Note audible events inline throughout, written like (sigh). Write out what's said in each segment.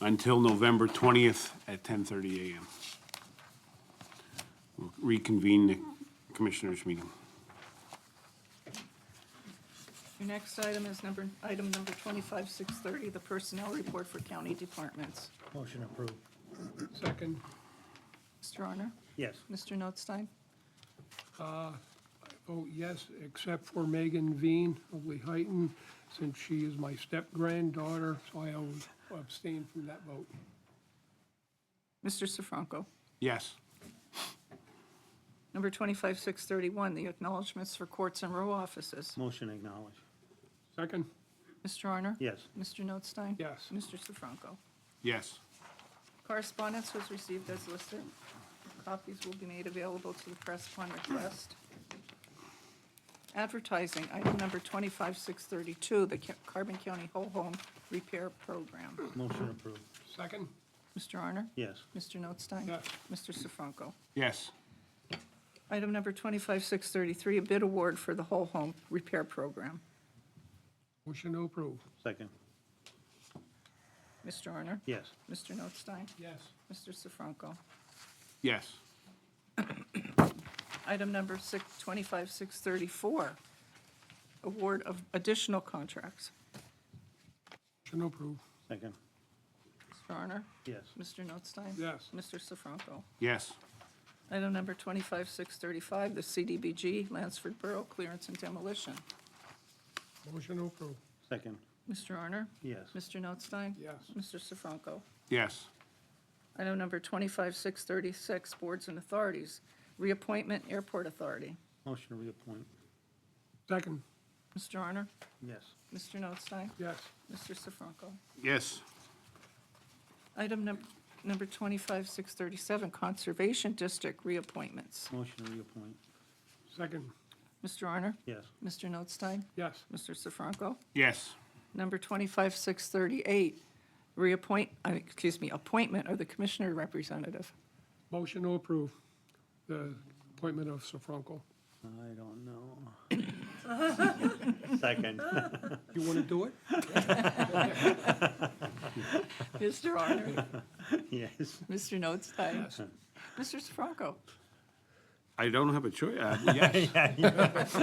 until November 20th at 10:30 a.m. We'll Reconvene the commissioners' meeting. Your next item is number, item number 25630, the personnel report for county departments. Motion approved. Second, Mr. Honor? Yes. Mr. Notstein? vote yes, except for Megan Veen of Lehighton, since she is my step-granddaughter, so I will abstain from that vote. Mr. Sifranco? Yes. Number 25631, the acknowledgements for courts and row offices. Motion acknowledged. Second, Mr. Honor? Yes. Mr. Notstein? Yes. Mr. Sifranco? Yes. Correspondence was received as listed. Copies will be made available to the press upon request. Advertising, item number 25632, the Ca- Carbon County Whole Home Repair Program. Motion approved. second, Mr. Honor? Yes. Mr. Notstein? Yes. Mr. Sifranco? Yes. Item number 25633, a bid award for the whole home repair program. motion to approve. Second. Mr. Honor? Yes. Mr. Notstein? Yes, Mr. Sifranco? Yes. Item number six- 25634, award of additional contracts. motion to approve. Second. Mr. Honor? Yes. Mr. Notstein? Yes. Mr. Sifranco? Yes. Item number 25635, the CDBG Lansford Borough Clearance and Demolition. Motion to approve. Second. Mr. Honor? Yes. Mr. Notstein? Yes, Mr. Sifranco? Yes. Item number 25636, Boards and Authorities, Reappointment Airport Authority. Motion to reappoint. second, Mr. Honor? Yes. Mr. Notstein? yes, Mr. Sifranco? Yes. Item num- number 25637, Conservation District Reappointments. Motion to reappoint. second, Mr. Honor? Yes. Mr. Notstein? yes, Mr. Sifranco? Yes. Number 25638, reappoint, uh, excuse me, appointment of the Commissioner (laughs) Representative. motion to approve the appointment of Sifranco. I don't know. Second. You want to do it? Mr. Honor? Yes. Mr. Notstein? Mr. Sifranco? I don't have a choice. (laughs) Yes.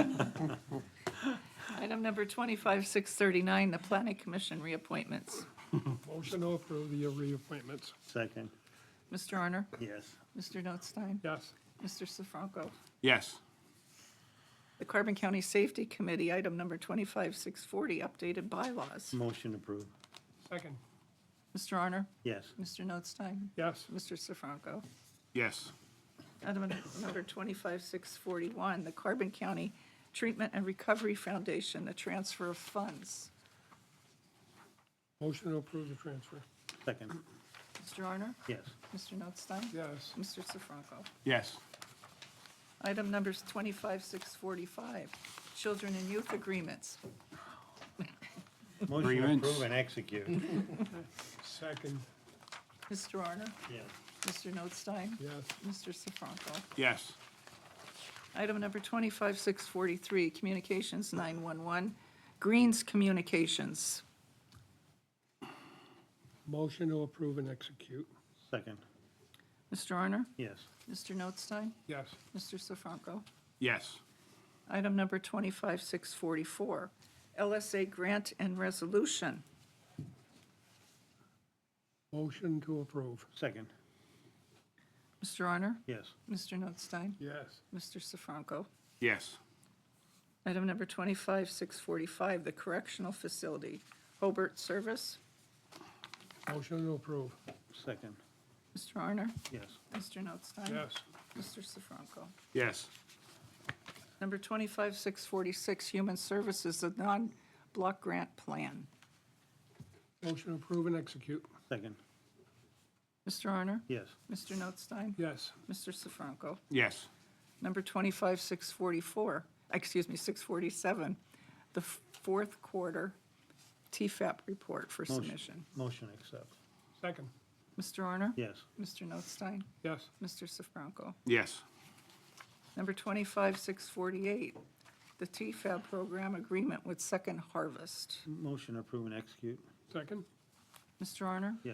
Item number 25639, the Planning Commission reappointments. Motion to approve the reappointments. Second. Mr. Honor? Yes. Mr. Notstein? Yes, Mr. Sifranco? Yes. The Carbon County Safety Committee, item number 25640, updated bylaws. Motion approved. second, Mr. Honor? Yes. Mr. Notstein? yes, Mr. Sifranco? Yes. Item number 25641, the Carbon County Treatment and Recovery Foundation, the transfer of funds. motion to approve the transfer. Second. Mr. Honor? Yes. Mr. Notstein? Yes, Mr. Sifranco? Yes. Item number 25645, Children and Youth Agreements. Motion to Agreements. approve and execute. second, Mr. Honor? Yes. Mr. Notstein? yes, Mr. Sifranco? Yes. Item number 25643, Communications 911, Greens Communications. motion to approve and execute. Second. Mr. Honor? Yes. Mr. Notstein? Yes, Mr. Sifranco? Yes. Item number 25644, LSA Grant and Resolution. motion to approve. Second. Mr. Honor? Yes. Mr. Notstein? Yes, Mr. Sifranco? Yes. Item number 25645, the Correctional Facility, Hobart Service. motion to approve. Second. Mr. Honor? Yes. Mr. Notstein? Yes, Mr. Sifranco? Yes. Number 25646, Human Services, the Non-Block Grant Plan. motion to approve and execute. Second. Mr. Honor? Yes. Mr. Notstein? Yes, Mr. Sifranco? Yes. Number 25644, excuse me, 647, the f- fourth quarter TFAP report for Motion. submission. Motion accept. second, Mr. Honor? Yes. Mr. Notstein? yes, Mr. Sifranco? Yes. Number 25648, the TFAP program agreement with Second Harvest. Motion approve and execute. second, Mr. Honor?